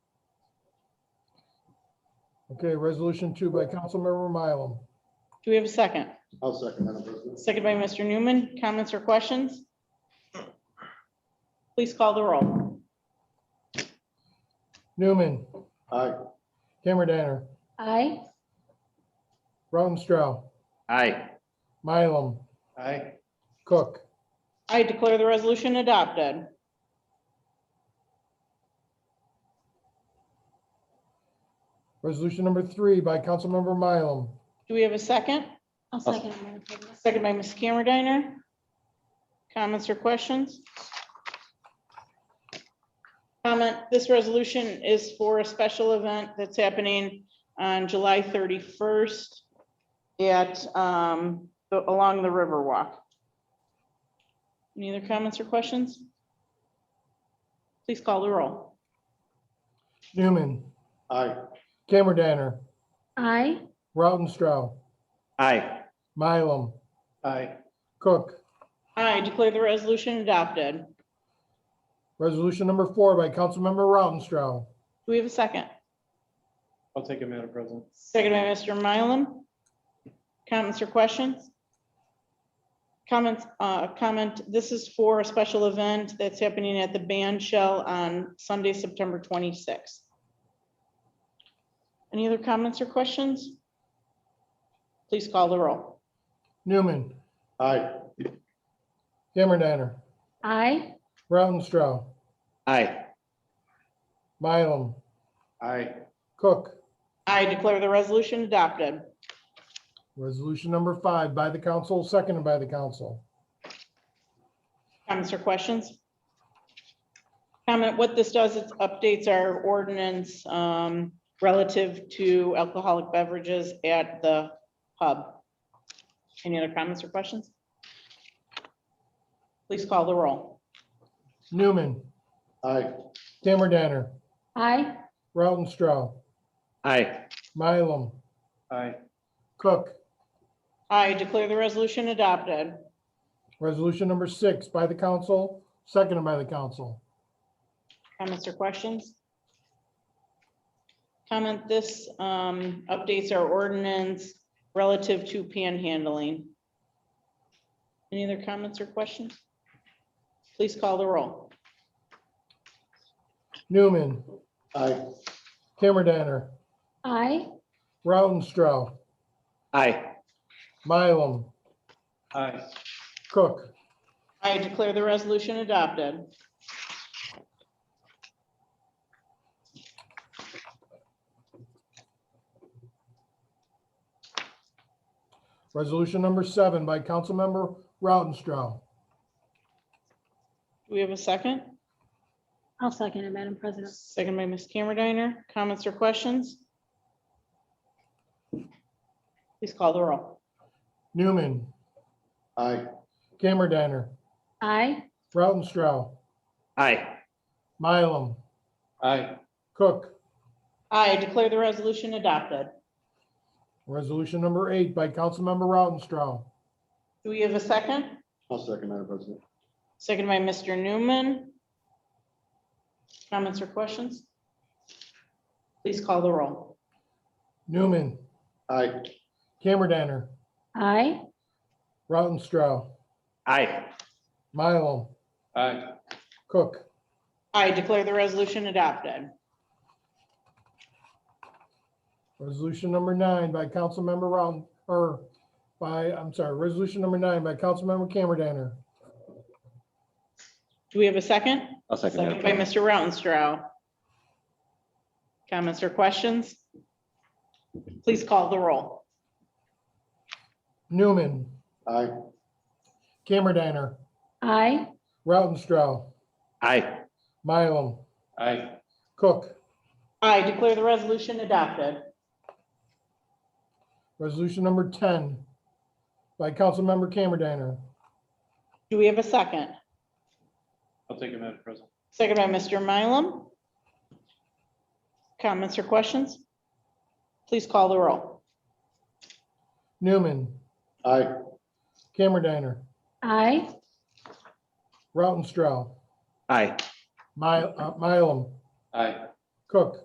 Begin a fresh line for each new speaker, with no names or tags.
Okay, resolution two by Councilmember Mylum.
Do we have a second?
I'll second, Madam President.
Second by Mr. Newman. Comments or questions? Please call the roll.
Newman,
Aye.
Cameron Danner,
aye,
Rautenstrau,
Aye.
Mylum,
Aye.
Cook.
I declare the resolution adopted.
Resolution number three by Councilmember Mylum.
Do we have a second?
I'll second. it, Madam President.
Second by Ms. Camerediner. Comments or questions? Comment, this resolution is for a special event that's happening on July 31st at, um, the- along the Riverwalk. Any other comments or questions? Please call the roll.
Newman,
Aye.
Cameron Danner,
Aye,
Rautenstrau,
Aye.
Mylum,
Aye.
Cook.
I declare the resolution adopted.
Resolution number four by Councilmember Rautenstrau.
Do we have a second?
I'll take it, Madam President.
Second by Mr. Mylum. Comments or questions? Comments, uh, comment, this is for a special event that's happening at the band shell on Sunday, September twenty-sixth. Any other comments or questions? Please call the roll.
Newman,
Aye.
Cameron Danner,
aye,
Rautenstrau,
Aye.
Mylum,
Aye.
Cook.
I declare the resolution adopted.
Resolution number five by the council, seconded by the council.
Comments or questions? Comment, what this does, it updates our ordinance um, relative to alcoholic beverages at the pub. Any other comments or questions? Please call the roll.
Newman,
Aye.
Cameron Danner,
aye,
Rautenstrau,
Aye.
Mylum,
Aye.
Cook.
I declare the resolution adopted.
Resolution number six by the council, seconded by the council.
Comments or questions? Comment, this um, updates our ordinance relative to panhandling. Any other comments or questions? Please call the roll.
Newman,
Aye.
Cameron Danner,
aye,
Rautenstrau,
Aye.
Mylum,
Aye.
Cook.
I declare the resolution adopted.
Resolution number seven by Councilmember Rautenstrau.
Do we have a second?
I'll second it, Madam President.
Second by Ms. Camerediner. Comments or questions? Please call the roll.
Newman,
Aye.
Cameron Danner,
Aye,
Rautenstrau,
Aye.
Mylum,
Aye.
Cook.
I declare the resolution adopted.
Resolution number eight by Councilmember Rautenstrau.
Do we have a second?
I'll second, Madam President.
Second by Mr. Newman. Comments or questions? Please call the roll.
Newman,
Aye.
Cameron Danner,
aye,
Rautenstrau,
Aye.
Mylum,
Aye.
Cook.
I declare the resolution adopted.
Resolution number nine by Councilmember Round, or by, I'm sorry, resolution number nine by Councilmember Cameron Danner.
Do we have a second?
I'll second
Second by
that.
Mr. Rautenstrau. Comments or questions? Please call the roll.
Newman,
Aye.
Cameron Danner,
aye,
Rautenstrau,
Aye.
Mylum,
Aye.
Cook.
I declare the resolution adopted.
Resolution number ten by Councilmember Cameron Danner.
Do we have a second?
I'll take it, Madam President.
Second by Mr. Mylum. Comments or questions? Please call the roll.
Newman,
Aye.
Cameron Danner,
aye,
Rautenstrau,
Aye.
My, uh, Mylum,
Aye.
Cook.